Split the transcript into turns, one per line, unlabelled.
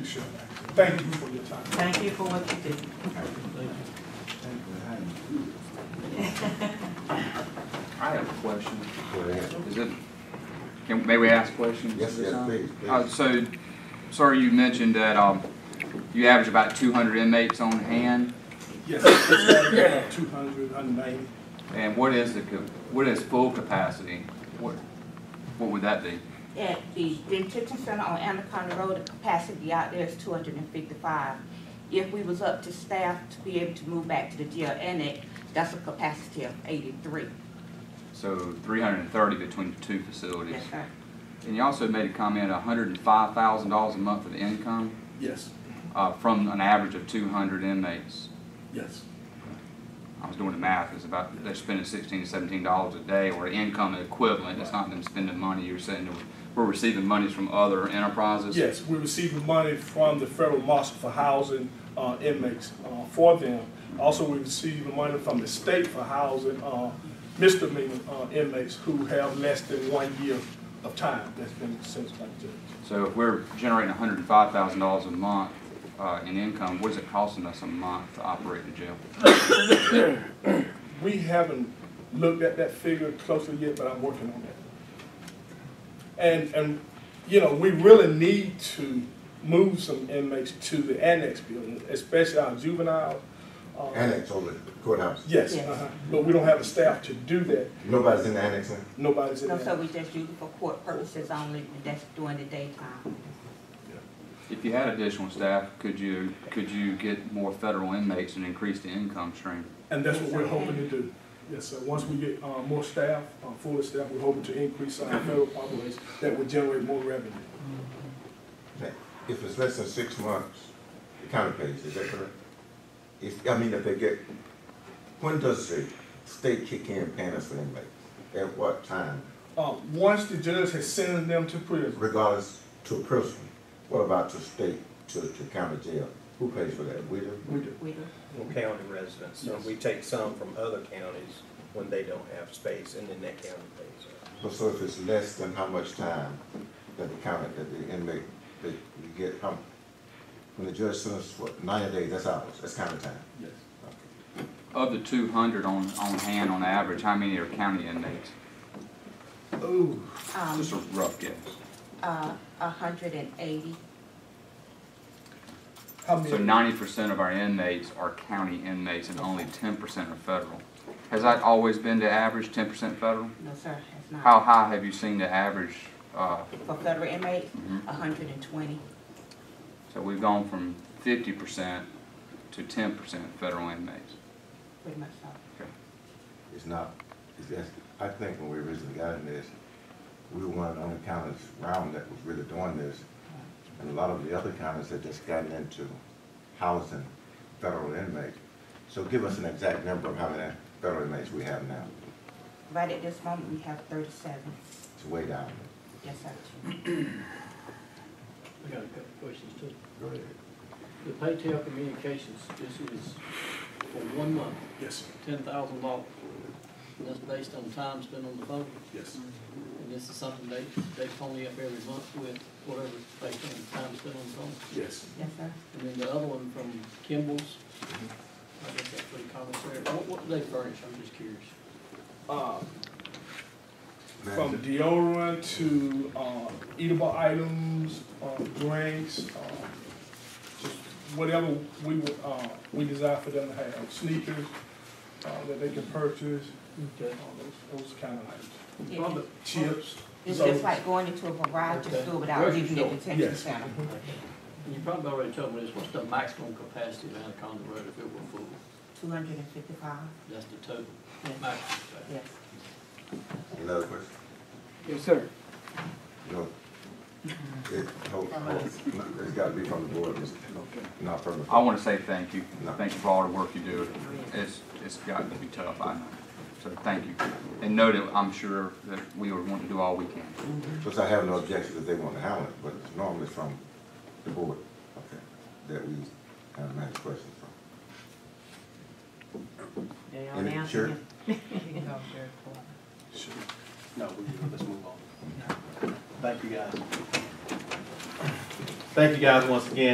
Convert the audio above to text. Sure. Thank you for your time.
Thank you for what you did.
I have a question. Is it, can, may we ask questions?
Yes, yes, please, please.
Uh, so, sir, you mentioned that, um, you average about two hundred inmates on hand,
Yes, two hundred, hundred ninety.
and what is the, co- what is full capacity? What, what would that be?
At the detention center on Anaconda Road, the capacity out there is two hundred and fifty-five. If we was up to staff to be able to move back to the jail annex, that's a capacity of eighty-three.
So three hundred and thirty between the two facilities.
Yes, sir.
And you also made a comment, hundred and five thousand dollars a month of income,
Yes,
uh, from an average of two hundred inmates.
yes.
I was doing the math, it's about, they're spending sixteen to seventeen dollars a day or income equivalent, it's not them spending money, you're saying that we're receiving monies from other enterprises?
Yes, we're receiving money from the federal marshal for housing uh, inmates uh, for them. Also, we receive the money from the state for housing uh, misdemeanor uh, inmates who have less than one year of time that's been sentenced by the judge.
So if we're generating hundred and five thousand dollars a month, uh, in income, what is it costing us a month to operate the jail?
We haven't looked at that figure closely yet, but I'm working on that. And, and, you know, we really need to move some inmates to the annex building, especially our juvenile. uh,
Annex over the courthouse.
Yes,
Yes.
uh-huh. but we don't have the staff to do that.
Nobody's in the annex now?
Nobody's in
No, so
there.
we just use it for court purposes only, and that's during the daytime.
If you had additional staff, could you, could you get more federal inmates and increase the income stream?
And that's what we're hoping to do. Yes, sir. Once we get uh, more staff, uh, fuller staff, we're hoping to increase our federal population that would generate more revenue.
If it's less than six months, the county pays, is that correct? If, I mean, if they get, when does the state kick in paying us for inmates? At what time?
Uh, Once the judge has sent them to prison,
Regardless to prison, what about to state, to, to county jail? Who pays for that? We do?
we do.
We do.
Well, county residents, so we take some from other counties when they don't have space, and then that county pays it.
So- So if it's less than how much time that the county, that the inmate, that you get, how, when the judge sends, what, ninety days, that's ours, that's county time?
Yes.
Okay.
Of the two hundred on, on hand on average, how many are county inmates?
Ooh.
Um,
Just a rough guess.
uh, hundred and eighty,
How
So
many?
ninety percent of our inmates are county inmates and only ten percent are federal. Has that always been the average, ten percent federal?
no, sir, it's
How
not.
high have you seen the average? uh,
For federal inmates,
Mhm.
hundred and twenty.
So we've gone from fifty percent to ten percent federal inmates.
pretty much so.
It's not, it's, that's, I think when we originally got in this, we were one of the only counties around that was really doing this. And a lot of the other counties had just gotten into housing federal inmates. So give us an exact number of how many federal inmates we have now.
Right at this moment, we have thirty-seven,
It's way down.
yes, sir.
I got a couple questions too.
Go ahead.
The Paytel Communications, this is for one month,
Yes, sir.
ten thousand dollars. And that's based on time spent on the phone,
Yes.
and this is something they, they phone me up every month with, whatever, based on time spent on the phone.
Yes.
Yes, sir.
And then the other one from Kimball's, I guess that's pretty common there. What, what do they furnish? I'm just curious.
Uh, From deodorant to uh, eatable items, uh, drinks, uh, just whatever we would, uh, we desire for them to have, sneakers uh, that they can purchase,
Okay.
uh, those, those kind of items.
Yeah.
Well,
Chips.
It's
so-
just like going into a variety
Okay.
store without
Grocery
leaving the
store.
detention
Yes.
center.
And you probably already told me this, what's the maximum capacity of Anaconda Road if it were full?
Two hundred and fifty-five,
That's the total,
yes,
maximum capacity.
yes.
Another question?
Yes, sir.
No. It, hold, hold, it's gotta be from the board, Mr. not from the.
I want to say thank you.
No.
Thank you for all the work you do. It's, it's gotten to be tough, I know. So thank you. And know that I'm sure that we would want to do all we can.
Because I have no objection that they want to handle it, but it's normally from the board, okay, that we have a nice question from.
They all
And it-
down
sure.
here.
Sure.
No, we, let's move on. Thank you, guys. Thank you, guys, once again.